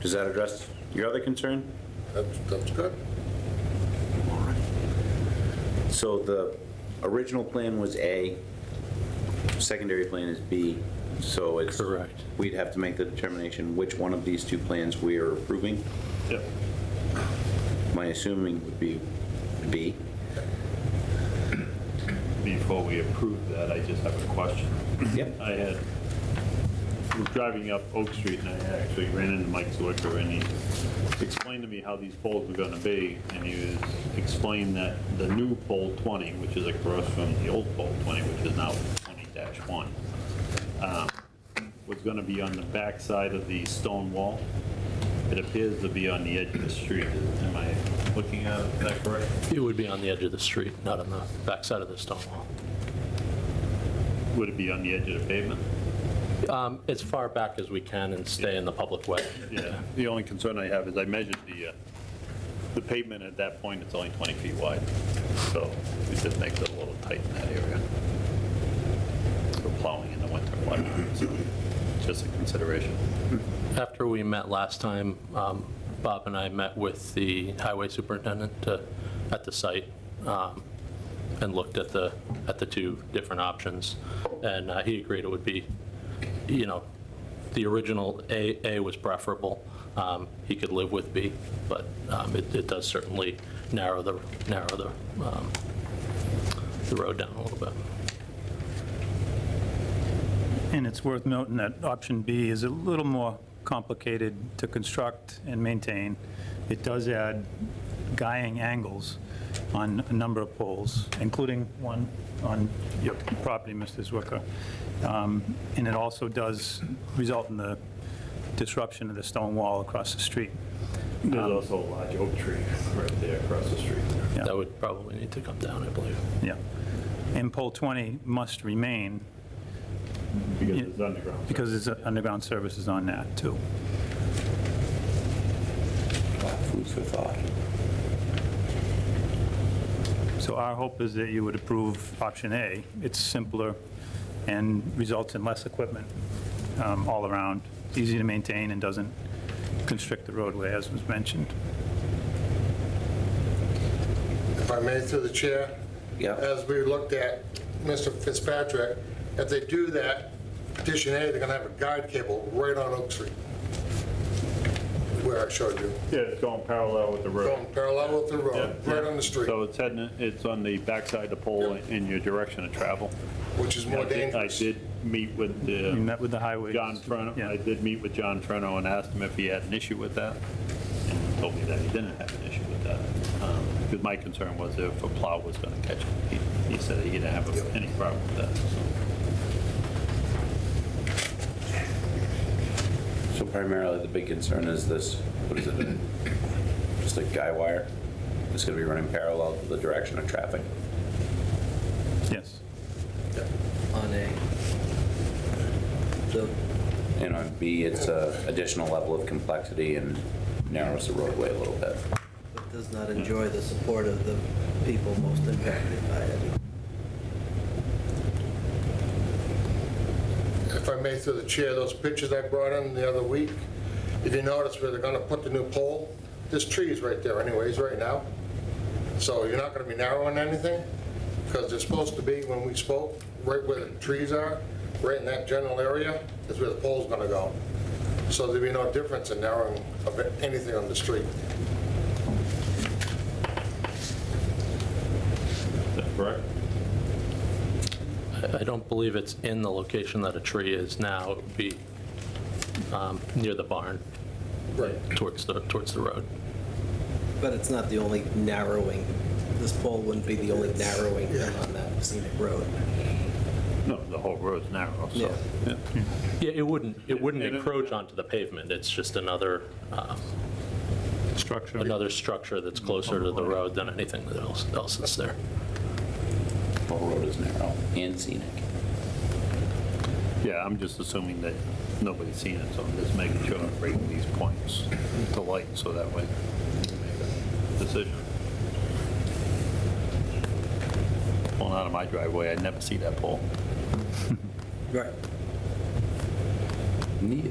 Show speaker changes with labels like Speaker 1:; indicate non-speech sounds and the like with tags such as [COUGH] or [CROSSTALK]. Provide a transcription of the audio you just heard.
Speaker 1: Does that address your other concern?
Speaker 2: That's, that's good.
Speaker 1: So the original plan was A, secondary plan is B, so it's.
Speaker 3: Correct.
Speaker 1: We'd have to make the determination which one of these two plans we are approving.
Speaker 3: Yep.
Speaker 1: My assuming would be B.
Speaker 3: Before we approve that, I just have a question.
Speaker 1: Yep.
Speaker 3: I had, I was driving up Oak Street and I actually ran into Mike Zwicker and he explained to me how these poles were gonna be. And he was, explained that the new pole 20, which is across from the old pole 20, which is now 20-1, um, was gonna be on the back side of the stone wall. It appears to be on the edge of the street. Am I looking at it, is that correct?
Speaker 4: It would be on the edge of the street, not on the backside of the stone wall.
Speaker 3: Would it be on the edge of the pavement?
Speaker 4: Um, As far back as we can and stay in the public way.
Speaker 3: Yeah, the only concern I have is I measured the, uh, the pavement at that point, it's only 20 feet wide, so it just makes it a little tight in that area. For plowing in the winter, whatnot, so just a consideration.
Speaker 4: After we met last time, um, Bob and I met with the highway superintendent to- at the site um, and looked at the, at the two different options. And uh, he agreed it would be, you know, the original A, A was preferable. Um, He could live with B, but um, it it does certainly narrow the, narrow the, um, the road down a little bit.
Speaker 5: And it's worth noting that option B is a little more complicated to construct and maintain. It does add guying angles on a number of poles, including one on your property, Mr. Zwicker. Um, And it also does result in the disruption of the stone wall across the street. Um,
Speaker 3: There's also a large oak tree right there across the street.
Speaker 5: Yeah.
Speaker 4: That would probably need to come down, I believe.
Speaker 5: Yeah. And pole 20 must remain
Speaker 3: Because it's underground.
Speaker 5: because there's underground services on that, too.
Speaker 1: Food for thought.
Speaker 5: So our hope is that you would approve option A. It's simpler and results in less equipment um, all around, It's easy to maintain and doesn't constrict the roadway, as was mentioned.
Speaker 2: If I may, through the chair.
Speaker 1: Yeah.
Speaker 2: As we looked at Mr. Fitzpatrick, if they do that, petition A, they're gonna have a guide cable right on Oak Street, where I showed you,
Speaker 3: Yeah, it's going parallel with the road.
Speaker 2: going parallel with the road,
Speaker 3: Yeah.
Speaker 2: right on the street,
Speaker 3: So it's heading, it's on the backside of the pole in your direction of travel.
Speaker 2: which is more
Speaker 3: I did-
Speaker 2: dangerous.
Speaker 3: I did meet with the.
Speaker 5: You met with the highway.
Speaker 3: John Frenno,
Speaker 5: Yeah.
Speaker 3: I did meet with John Frenno and asked him if he had an issue with that, and he told me that he didn't have an issue with that. Because my concern was if a plow was going to catch it. He- He said he didn't have any problem with that, so.
Speaker 1: So primarily, the big concern is this, what is it, [COUGHS] just a guy wire? It's gonna be running parallel to the direction of traffic.
Speaker 5: Yes.
Speaker 6: on A. So,
Speaker 1: And on B, it's a additional level of complexity and narrows the roadway a little bit.
Speaker 6: but does not enjoy the support of the people most impacted by it.
Speaker 2: If I may, through the chair, those pictures I brought in the other week, if you notice where they're gonna put the new pole, this tree is right there anyways, right now. So you're not gonna be narrowing anything, because they're supposed to be, when we spoke, right where the trees are, right in that general area, is where the pole's gonna go. So there'd be no difference in narrowing of anything on the street.
Speaker 3: Is that correct?
Speaker 4: I- I don't believe it's in the location that a tree is now. It would be um, near the barn,
Speaker 2: Right.
Speaker 4: towards the, towards the road.
Speaker 6: But it's not the only narrowing, this pole wouldn't be the only narrowing thing on that scenic road.
Speaker 3: No, the whole road's narrow, so.
Speaker 6: Yeah.
Speaker 3: yeah.
Speaker 4: Yeah, it wouldn't, it wouldn't
Speaker 3: And it-
Speaker 4: encroach onto the pavement. It's just another, um,
Speaker 5: Structure.
Speaker 4: another structure that's closer to Mm, the road than anything else else that's there.
Speaker 1: The whole road is narrow and scenic.
Speaker 3: Yeah, I'm just assuming that nobody's seen it, so I'm just making sure I'm bringing these points to light, so that way we can make a decision. Pulling out of my driveway, I'd never see that pole.
Speaker 6: Right.
Speaker 1: Neat.